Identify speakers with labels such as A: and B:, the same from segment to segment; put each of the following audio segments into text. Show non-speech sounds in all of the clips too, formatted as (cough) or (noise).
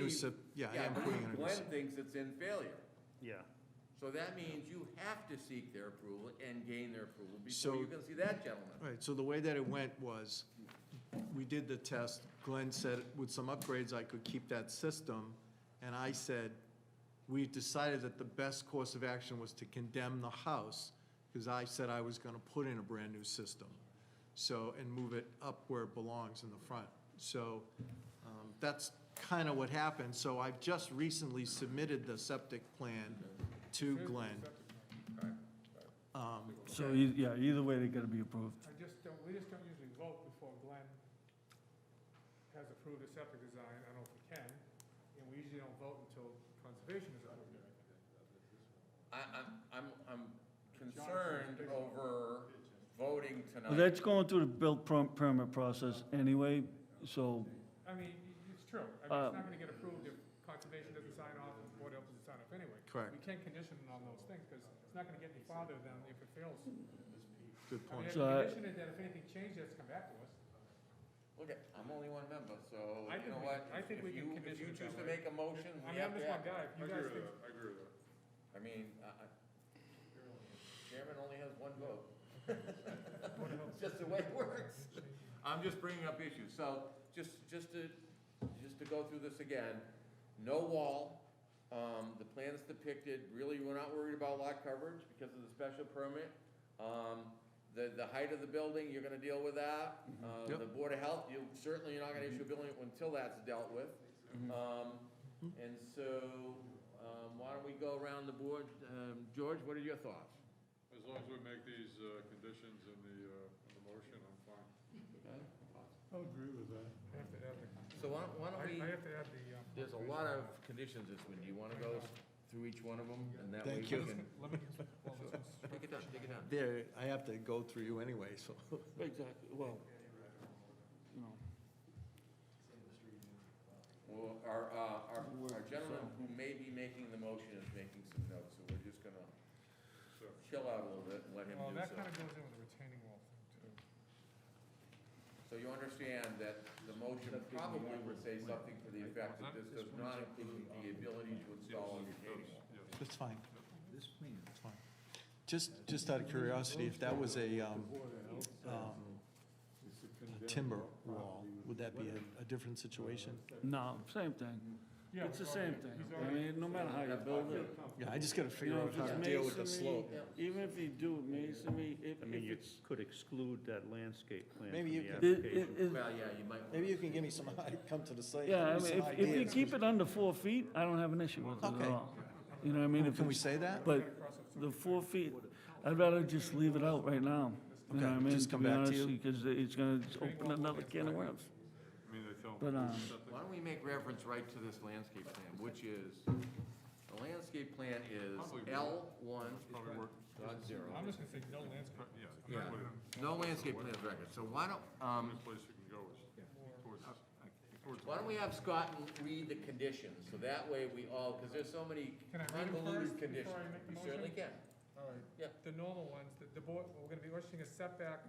A: recip, yeah, I am
B: but
A: putting in a
B: Glenn
A: recip.
B: thinks it's in failure.
C: Yeah.
B: So that means you have to seek their approval and gain their approval
A: So-
B: before you can see that gentleman.
A: All right, so the way that it went was, we did the test, Glenn said with some upgrades, I could keep that system, and I said, we decided that the best course of action was to condemn the house, because I said I was gonna put in a brand-new system, so, and move it up where it belongs in the front. So, um, that's kinda what happened, so I've just recently submitted the septic plan to Glenn. Um,
D: So, e- yeah, either way, they're gonna be approved.
E: I just don't, we just don't usually vote before Glenn has approved a septic design, I don't know if we can, and we usually don't vote until conservation is approved.
B: I, I'm, I'm, I'm concerned over voting
D: But
B: tonight.
D: that's going through the built perm- permit process anyway, so,
E: I mean, it's true, I mean, it's not
D: Um,
E: gonna get approved if conservation doesn't sign off and the board else doesn't sign off anyway.
A: Correct.
E: We can't condition it on those things, because it's not gonna get any farther than if it fails.
A: Good
E: I mean,
A: point.
E: if
D: So I-
E: you condition it, then if anything changes, it's come back to us.
B: Look, at- I'm only one member, so
E: I
B: you
E: think
B: know
E: we-
B: what?
E: I think
B: If
E: we can
B: you-
E: condition it
B: If you choose
E: that
B: to
E: way.
B: make a motion,
E: I
B: we
E: mean,
B: have
E: I'm just
B: to
E: one
B: act.
E: guy, if you guys think.
B: I mean, I, I, chairman only has one vote. It's just the way it works. I'm just bringing up issues, so just, just to, just to go through this again, no wall. Um, the plans depicted, really, we're not worried about lot coverage because of the special permit. Um, the, the height of the building, you're gonna deal with that. Uh,
A: Yep.
B: the Board of Health, you, certainly you're not gonna issue a building until that's dealt with.
A: Mm-hmm.
B: Um, and so, um, why don't we go around the board? Um, George, what are your thoughts?
F: As long as we make these uh, conditions in the, uh, in the motion, I'm fine.
G: I agree with that.
E: I have to add the,
B: So why don't, why
E: I
B: don't we,
E: I have to add the. um,
B: there's a lot of conditions this one. Do you wanna go through each one of them? And that way we
A: Thank you.
B: can.
E: Let um, me, well, this one's.
B: (laughs) Take it down, take it down.
A: There, I have to go through you anyway, so.
B: Exactly, well. Well, our, uh, our, our gentleman who may be making the motion is making some notes, so we're just gonna chill out a little bit and let him
E: Well,
B: do
E: that kind
B: so.
E: of goes in with the retaining wall thing, too.
B: So you understand that the motion probably would say something to the effect that this does not include the ability to install a retaining wall.
A: That's fine. That's fine. Just, just out of curiosity, if that was a, um, um, a timber wall, would that be a, a different situation?
D: no, same thing.
E: Yeah,
D: It's the
E: we've
D: same
E: already-
D: thing.
E: he's
D: I
E: already-
D: mean, no matter how you build it,
A: Yeah, I just gotta
D: you
A: figure
D: know,
A: out
D: if
A: how to
D: it's
A: deal with the slope.
D: masonry, even if you do masonry, if
C: I
D: if
C: mean, you
D: it's,
C: could exclude that landscape plan from
A: Maybe you
C: the
A: could-
D: it, it,
C: application.
D: it-
B: Well, yeah, you might. wanna-
A: Maybe you can give me some, (laughs) come to the site.
D: yeah, I
A: give me
D: mean,
A: some
D: if, if you
A: ideas.
D: keep it under four feet, I don't have an issue with it at
A: Okay.
D: all. You know what I mean? If
A: Can we
D: it's-
A: say that?
D: But the four feet, I'd rather just leave it out right now. You
A: Okay,
D: know what I mean?
A: just come back to you.
D: Because it's gonna open another can of worms.
F: I mean, they tell
D: But,
F: them,
D: um,
B: Why don't we make reference right to this landscape plan, which is, the landscape plan is L one
F: probably work,
B: dot
E: I'm
B: zero.
E: just gonna say no landscape.
F: yeah, that's
B: Yeah,
F: what it-
B: no landscape plan of record, so why don't,
F: the
B: um,
F: only place you can go is towards, towards.
B: Uh, why don't we have Scott and read the conditions, so that way we all, because there's so many
E: Can I read them
B: convoluted
E: first before
B: conditions.
E: I make the
B: You certainly
E: motion?
B: can.
E: All right.
B: Yeah.
E: The normal ones, the, the board, we're gonna be requesting a setback,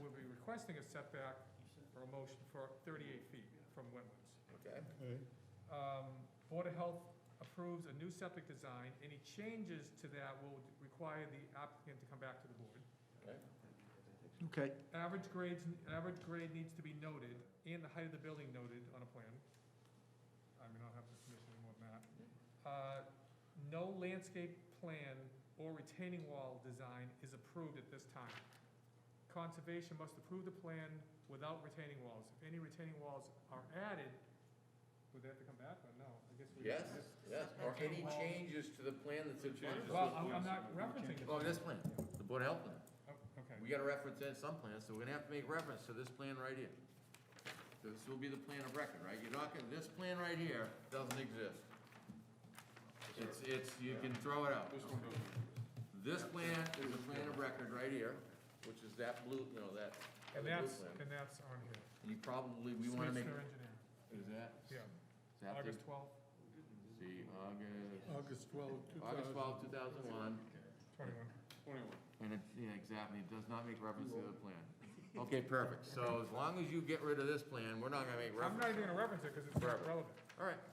E: we'll be requesting a setback for a motion for thirty-eight feet from wetlands.
B: Okay.
E: Um, Board of Health approves a new septic design, any changes to that will require the applicant to come back to the board.
B: Okay.
A: Okay,
E: Average grades, average grade needs to be noted, and the height of the building noted on a plan. I mean, I don't have this information anymore than that. Uh, No landscape plan or retaining wall design is approved at this time. Conservation must approve the plan without retaining walls. If any retaining walls are added, would they have to come back, or no? I guess we-
B: Yes, yes, or any changes to the plan that's in front of us?
E: Well, I'm, I'm not referencing it.
B: Oh, this plan, the Board of Health plan.
E: Oh, Okay.
B: We gotta reference that in some plans, so we're gonna have to make reference to this plan right here. This will be the plan of record, right? You're not gonna, this plan right here doesn't exist. It's, it's, you can throw it out.
F: This one doesn't,
B: This plan is the plan of record right here, which is that blue, you know, that
E: And
B: other blue
E: that's,
B: plan.
E: and that's on here.
B: You probably, we wanna make,
E: Smith's their engineer,
B: is that,
E: yeah,
B: is that the,
E: August twelfth,
B: see, August,
G: August 12, 2000.
B: August twelfth, two thousand one.
E: twenty-one.
F: twenty-one.
B: And it, yeah, exactly, it does not make reference to the plan. Okay, perfect. So as long as you get rid of this plan, we're not gonna make
E: I'm
B: reference.
E: not even gonna reference it because it's not relevant.
B: All right.